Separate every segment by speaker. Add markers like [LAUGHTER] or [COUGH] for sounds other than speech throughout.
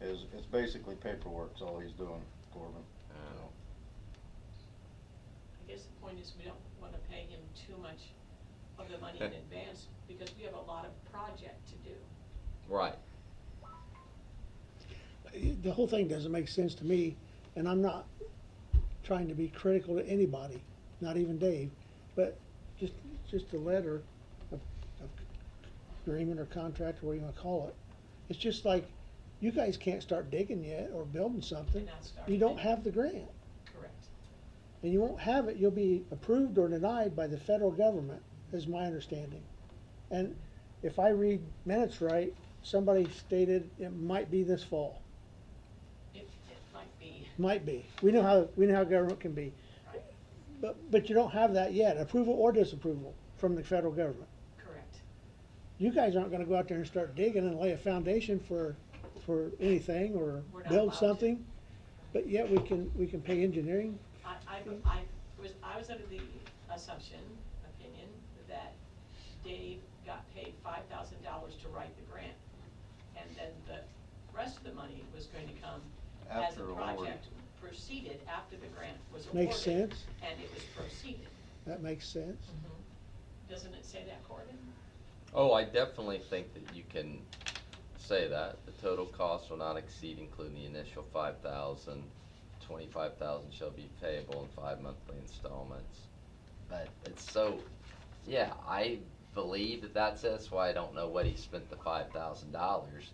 Speaker 1: is, it's basically paperwork's all he's doing, Corbin.
Speaker 2: Uh.
Speaker 1: So,
Speaker 3: I guess the point is, we don't wanna pay him too much of the money in advance, because we have a lot of project to do.
Speaker 2: Right.
Speaker 4: The whole thing doesn't make sense to me, and I'm not trying to be critical to anybody, not even Dave, but just, just a letter of, of agreement or contract, or whatever you wanna call it. It's just like, you guys can't start digging yet or building something.
Speaker 3: They're not starting.
Speaker 4: You don't have the grant,
Speaker 3: Correct.
Speaker 4: and you won't have it, you'll be approved or denied by the federal government, is my understanding. And if I read minutes right, somebody stated it might be this fall.
Speaker 3: It, it might be,
Speaker 4: Might be. We know how, we know how government can be. But, but you don't have that yet, approval or disapproval from the federal government.
Speaker 3: correct.
Speaker 4: You guys aren't gonna go out there and start digging and lay a foundation for, for anything or
Speaker 3: We're not allowed
Speaker 4: build
Speaker 3: to.
Speaker 4: something. But Hmm. yet we can, we can pay engineering.
Speaker 3: I, I, I was, I was under the assumption, opinion, that Dave got paid five thousand dollars to write the grant. And then the rest of the money was going to come as the
Speaker 1: After award.
Speaker 3: project proceeded, after the grant was awarded.
Speaker 4: Makes sense.
Speaker 3: And it was proceeded.
Speaker 4: That makes sense.
Speaker 1: Mm-hmm.
Speaker 3: Doesn't it say that, Corbin?
Speaker 2: Oh, I definitely think that you can say that. The total cost will not exceed including the initial five thousand. Twenty-five thousand shall be payable in five monthly installments. But it's so, yeah, I believe that that's it. That's why I don't know what he spent the five thousand dollars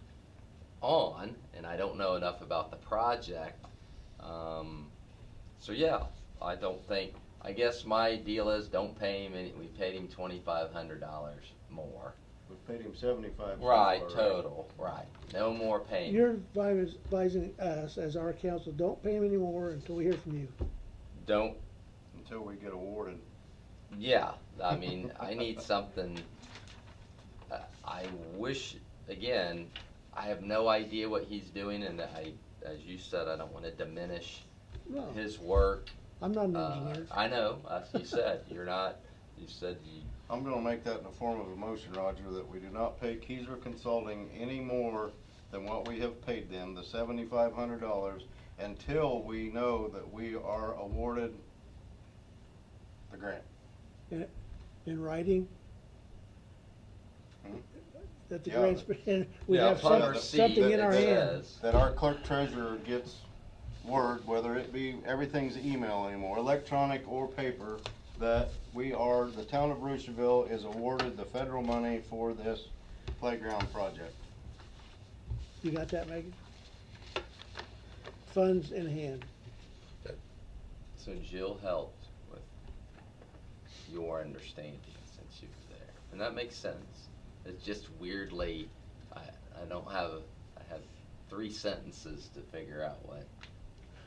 Speaker 2: on, and I don't know enough about the project. Um, so yeah, I don't think I guess my deal is don't pay him, any we paid him twenty-five hundred dollars more.
Speaker 1: We paid him seventy-five. so
Speaker 2: Right,
Speaker 1: far,
Speaker 2: total, right, no more payment.
Speaker 4: You're advis- advising us as our council, don't pay them anymore until we hear from you.
Speaker 2: Don't,
Speaker 1: Until we get awarded.
Speaker 2: yeah, I mean, I need something, I- I wish, again, I have no idea what he's doing, and I, as you said, I don't wanna diminish
Speaker 4: No,
Speaker 2: his work.
Speaker 4: I'm not an
Speaker 2: Uh,
Speaker 4: engineer.
Speaker 2: I know, as you said, you're not, you said you,
Speaker 1: I'm gonna make that in the form of a motion, Roger, that we do not pay Keyser Consulting any more than what we have paid them, the seventy-five hundred dollars, until we know that we are awarded the grant.
Speaker 4: In writing.
Speaker 1: Hmm?
Speaker 4: That the
Speaker 1: Yeah,
Speaker 4: grants, [LAUGHS] and we
Speaker 2: Yeah,
Speaker 4: have
Speaker 2: upon
Speaker 4: some-
Speaker 1: receipt,
Speaker 4: something in
Speaker 1: it
Speaker 4: our hand.
Speaker 2: says.
Speaker 1: That our clerk treasurer gets word, whether it be, everything's email anymore, electronic or paper, that we are, the town of Bruceville is awarded the federal money for this playground project.
Speaker 4: You got that, Megan? Funds in hand.
Speaker 2: so Jill helped with your understanding since you were there, and that makes sense. It's just weirdly, I, I don't have, a- I have three sentences to figure out what.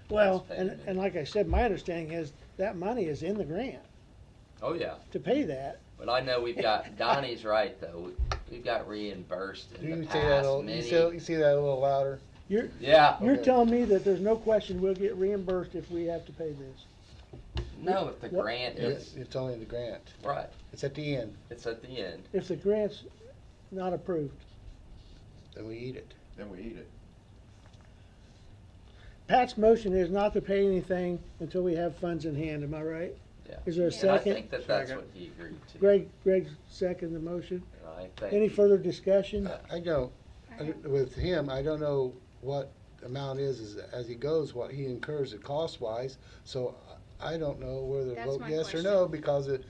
Speaker 4: Well,
Speaker 2: that's
Speaker 4: and,
Speaker 2: payment.
Speaker 4: and like I said, my understanding is that money is in the grant
Speaker 2: Oh, yeah,
Speaker 4: to pay that.
Speaker 2: but I know we've got, Donnie's right, though, We- we've got reimbursed
Speaker 5: You
Speaker 2: in the
Speaker 5: can say that, a
Speaker 2: past,
Speaker 5: little- you say,
Speaker 2: many,
Speaker 5: you say that a little louder.
Speaker 4: You're,
Speaker 2: yeah,
Speaker 4: you're
Speaker 5: Okay.
Speaker 4: telling me that there's no question we'll get reimbursed if we have to pay this.
Speaker 2: no, if the
Speaker 4: What-
Speaker 2: grant
Speaker 5: It's,
Speaker 2: is,
Speaker 5: it's only the grant.
Speaker 2: right,
Speaker 5: It's at the end,
Speaker 2: it's at the end.
Speaker 4: If the grant's not approved.
Speaker 5: then we eat it.
Speaker 1: Then we eat it.
Speaker 4: Pat's motion is not to pay anything until we have funds in hand, am I right?
Speaker 2: Yeah.
Speaker 4: Is there a
Speaker 2: And I
Speaker 4: second?
Speaker 2: think that that's what he agreed to.
Speaker 4: Greg, Greg second the motion.
Speaker 2: And I think
Speaker 4: Any
Speaker 2: he-
Speaker 4: further discussion?
Speaker 5: I- I don't, I- with him, I don't know what amount is, is as he goes, what he incurs it cost-wise. So I I don't know whether to
Speaker 6: That's
Speaker 5: vote
Speaker 6: my
Speaker 5: yes or no, because it,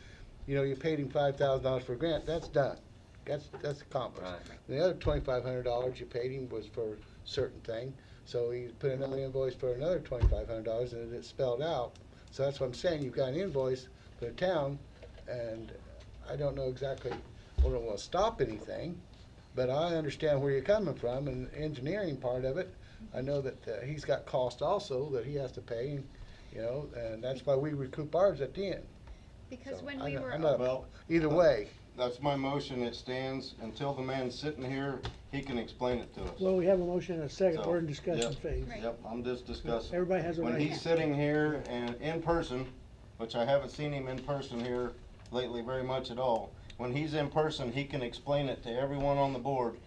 Speaker 5: you know, you paid him five thousand dollars for a grant, that's done. That's, that's accomplished.
Speaker 2: Right.
Speaker 5: The other twenty-five hundred dollars you paid him was for a certain thing, so he put another invoice for another twenty-five hundred dollars, and it's spelled out. So that's what I'm saying, you've got an invoice for the town, and I don't know exactly, well, it will stop anything, but I understand where you're coming from, and the engineering part of it, I know that uh, he's got cost also that he has to pay, and, you know, and that's why we recoup ours at the end.
Speaker 6: Because
Speaker 5: So,
Speaker 6: when
Speaker 5: I
Speaker 6: we
Speaker 5: know-
Speaker 6: were,
Speaker 5: I know.
Speaker 1: Well,
Speaker 5: Either way,
Speaker 1: that's my motion, it stands, until the man's sitting here, he can explain it to us.
Speaker 4: Well, we have a motion and a second,
Speaker 1: So,
Speaker 4: we're in discussion
Speaker 1: yep.
Speaker 4: phase.
Speaker 6: Right.
Speaker 1: Yep, I'm just discussing.
Speaker 4: Everybody has a
Speaker 1: When
Speaker 4: right.
Speaker 1: he's sitting here and in person, which I haven't seen him in person here lately very much at all, when he's in person, he can explain it to everyone on the board